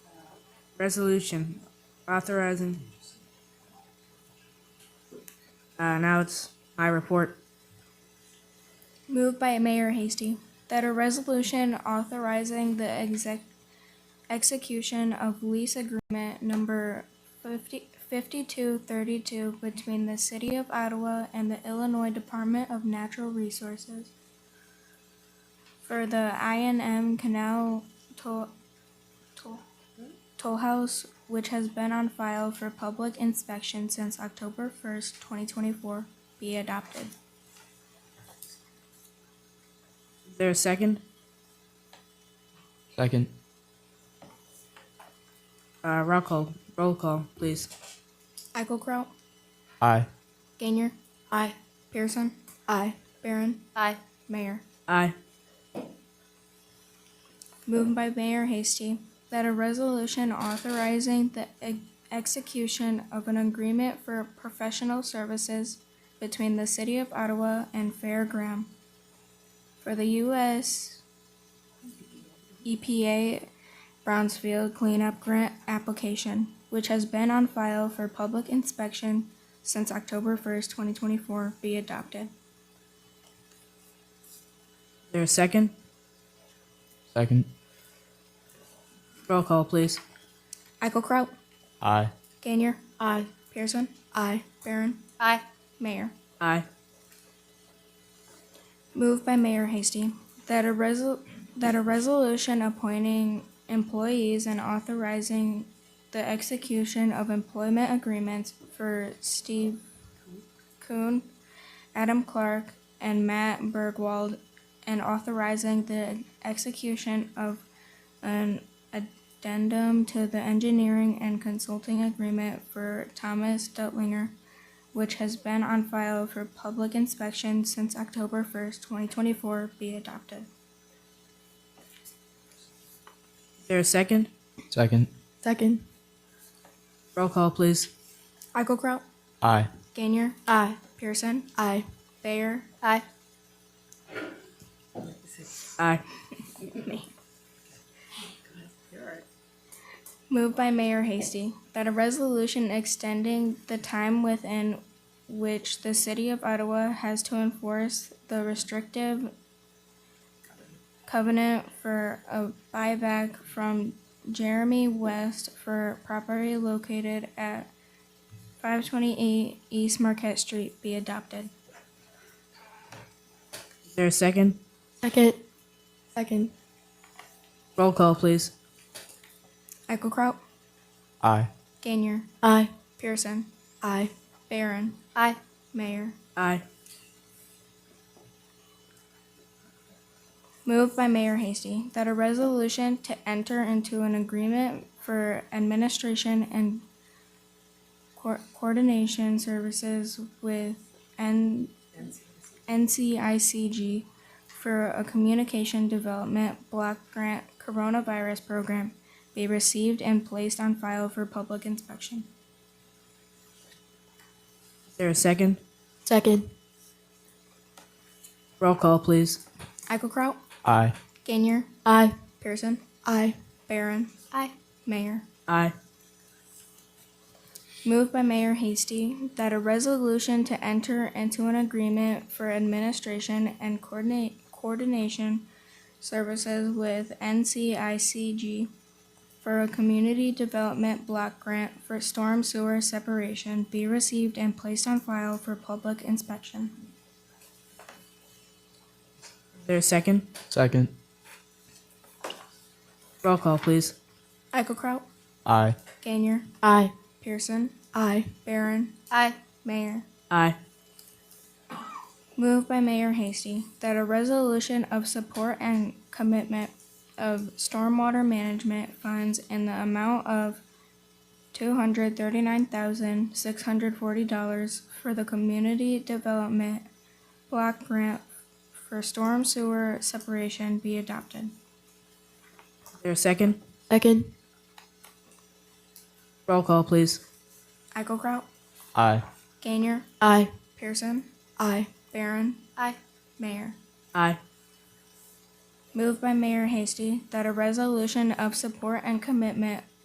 Resolution authorizing. Uh, now it's my report. Moved by Mayor Hasty that a resolution authorizing the exec- execution of lease agreement number 50 5232 between the City of Ottawa and the Illinois Department of Natural Resources for the INM Canal Toll, toll, toll House, which has been on file for public inspection since October 1st, 2024, be adopted. Is there a second? Second. Uh, roll call, roll call, please. Eichelkraut? Aye. Gainer. Aye. Pearson. Aye. Barron. Aye. Mayor. Aye. Moved by Mayor Hasty that a resolution authorizing the e- execution of an agreement for professional services between the City of Ottawa and Fair Graham for the U.S. EPA Brownsfield Cleanup Grant application, which has been on file for public inspection since October 1st, 2024, be adopted. Is there a second? Second. Roll call, please. Eichelkraut. Aye. Gainier. Aye. Pearson. Aye. Barron. Aye. Mayor. Aye. Moved by Mayor Hasty that a resol- that a resolution appointing employees and authorizing the execution of employment agreements for Steve Kuhn, Adam Clark, and Matt Bergwald, and authorizing the execution of an addendum to the engineering and consulting agreement for Thomas Dutlinger which has been on file for public inspection since October 1st, 2024, be adopted. Is there a second? Second. Second. Roll call, please. Eichelkraut, Aye. Gainier, Aye. Pearson, Aye. Bayer, Aye. Aye. Moved by Mayor Hasty that a resolution extending the time within which the City of Ottawa has to enforce the restrictive covenant for a buyback from Jeremy West for property located at 528 East Marquette Street be adopted. Is there a second? Second. Second. Roll call, please. Eichelkraut, Aye. Gainier, Aye. Pearson, Aye. Barron, Aye. Mayor. Aye. Moved by Mayor Hasty that a resolution to enter into an agreement for administration and co- coordination services with N- NCICG for a communication development block grant coronavirus program be received and placed on file for public inspection. Is there a second? Second. Roll call, please. Eichelkraut, Aye. Gainier, Aye. Pearson, Aye. Barron, Aye. Mayor. Aye. Moved by Mayor Hasty that a resolution to enter into an agreement for administration and coordinate, coordination services with NCICG for a community development block grant for storm sewer separation be received and placed on file for public inspection. Is there a second? Second. Roll call, please. Eichelkraut, Aye. Gainier, Aye. Pearson, Aye. Barron, Aye. Mayor. Aye. Moved by Mayor Hasty that a resolution of support and commitment of stormwater management funds in the amount of two hundred thirty-nine thousand six hundred forty dollars for the community development block grant for storm sewer separation be adopted. Is there a second? Second. Roll call, please. Eichelkraut, Aye. Gainier, Aye. Pearson, Aye. Barron, Aye. Mayor. Aye. Moved by Mayor Hasty that a resolution of support and commitment